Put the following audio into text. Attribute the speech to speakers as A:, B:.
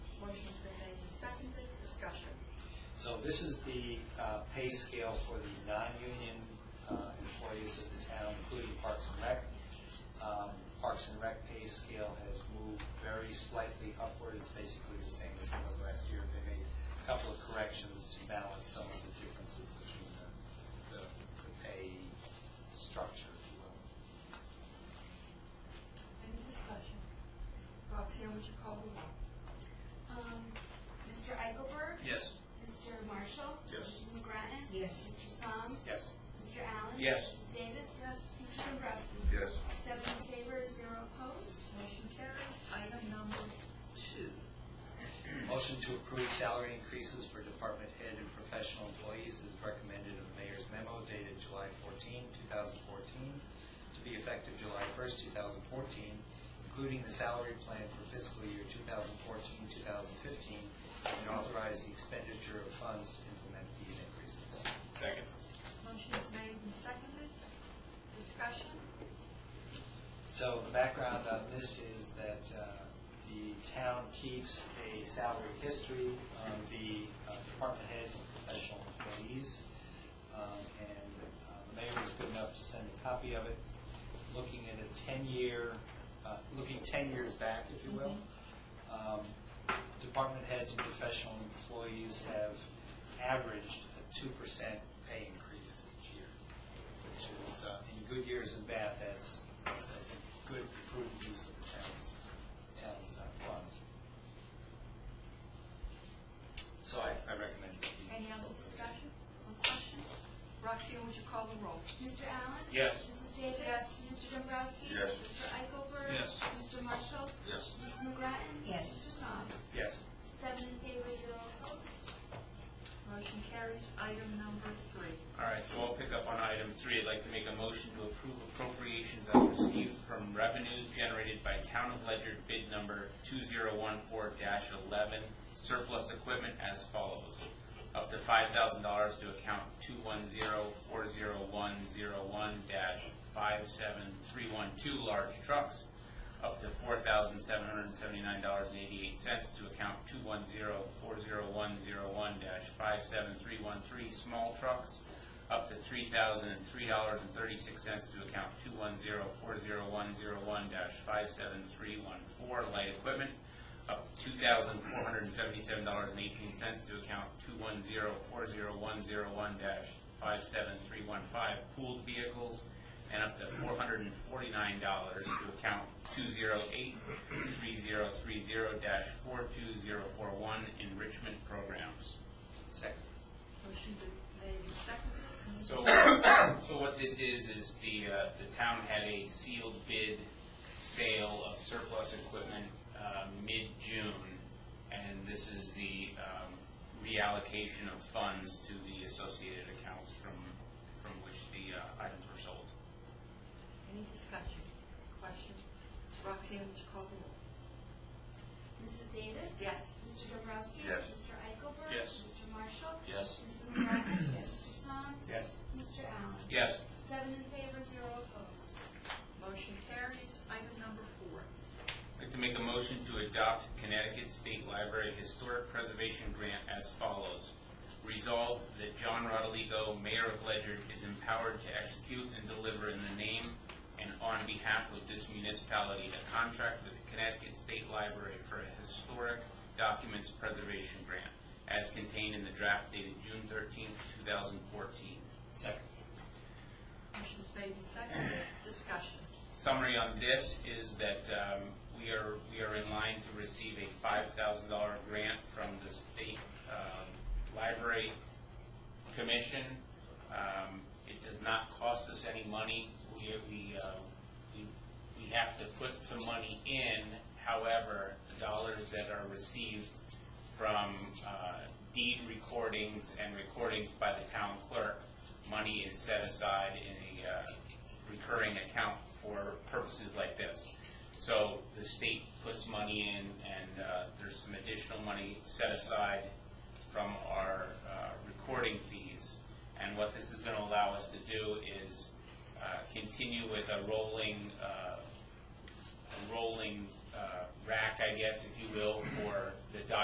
A: So this is the uh, pay scale for the non-union uh, employees of the town, including Parks and Rec. Um, Parks and Rec pay scale has moved very slightly upward, it's basically the same as it was last year. They made a couple of corrections to balance some of the differences between the- the the pay structure, if you will.
B: Any discussion? Roxanne, would you call the roll?
C: Um, Mr. Eichelberg?
A: Yes.
C: Mr. Marshall?
A: Yes.
C: Mrs. McGrattan?
B: Yes.
C: Mr. Soms?
A: Yes.
C: Mr. Allen?
A: Yes.
C: Mrs. Davis? Yes. Mr. Dombrowski?
D: Yes.
C: Seven in favor, zero opposed.
B: Motion carries. Item number two.
A: Motion to approve salary increases for department head and professional employees is recommended in the mayor's memo dated July 14, 2014, to be effective July 1st, 2014, including the salary plan for fiscal year 2014-2015, and authorize the expenditure of funds to implement these increases.
D: Second.
B: Motion is made and seconded. Discussion?
A: So the background on this is that uh, the town keeps a salary history of the uh, department heads and professional employees. Um, And uh, the mayor was good enough to send a copy of it, looking at a 10-year, uh, looking 10 years back, if you will. Um, Department heads and professional employees have averaged a 2% pay increase each year which is, uh, in good years and bad, that's, that's a good, prudent use of the town's, town's uh, funds. So I, I recommend that you.
B: Any other discussion or questions? Roxanne, would you call the roll?
C: Mr. Allen?
A: Yes.
C: Mrs. Davis?
B: Yes.
C: Mr. Dombrowski?
D: Yes.
C: Mr. Eichelberg?
A: Yes.
C: Mr. Marshall?
D: Yes.
C: Mrs. McGrattan?
B: Yes.
C: Mr. Soms?
A: Yes.
C: Seven in favor, zero opposed.
B: Motion carries. Item number three.
E: All right, so I'll pick up on item three. I'd like to make a motion to approve appropriations as received from revenues generated by Town of Ledger bid number two zero one four eleven surplus equipment as follows. Up to five thousand dollars to account two one zero four zero one zero one five seven three one two large trucks. Up to four thousand seven hundred and seventy-nine dollars and eighty-eight cents to account two one zero four zero one zero one five seven three one three small trucks up to three thousand and three dollars and thirty-six cents to account two one zero four zero one zero one dash five seven three one four light equipment, up to two thousand four hundred and seventy-seven dollars and eighteen cents to account two one zero four zero one zero one dash five seven three one five pooled vehicles, and up to four hundred and forty-nine dollars to account two zero eight three zero three zero dash four two zero four one enrichment programs.
A: Second.
B: Motion be- made and seconded. Any
E: So,
B: discussion?
E: so what this is, is the, uh, the town had a sealed bid sale of surplus equipment, uh, mid-June. And this is the, um, reallocation of funds to the associated accounts from, from which the, uh, items were sold.
B: Any discussion? Questions? Roxanne, would you call the roll?
C: Mrs. Davis?
B: Yes.
C: Mr. Dombrowski?
D: Yes.
C: Mr. Eichelberg?
E: Yes.
C: Mr. Marshall?
E: Yes.
C: Mrs. McGrattan?
B: Yes.
C: Mr. Soms?
A: Yes.
C: Mr. Allen?
E: Yes.
C: Seven in favor, zero opposed.
B: Motion carries. Item number four.
E: I'd like to make a motion to adopt Connecticut State Library Historic Preservation Grant as follows. Resolved that John Rodoligo, Mayor of Ledger, is empowered to execute and deliver in the name and on behalf of this municipality a contract with the Connecticut State Library for a historic documents preservation grant as contained in the draft dated June thirteenth, two thousand fourteen.
A: Second.
B: Motion's made and seconded. Discussion.
E: Summary on this is that um, we are, we are in line to receive a $5,000 grant from the State um, Library Commission. Um, It does not cost us any money. We, we, uh, we we have to put some money in. However, the dollars that are received from uh, deed recordings and recordings by the town clerk, money is set aside in a uh, recurring account for purposes like this. So the state puts money in, and uh, there's some additional money set aside from our uh, recording fees. And what this is going to allow us to do is uh, continue with a rolling uh, a rolling uh, rack, I guess, if you will, for the doc.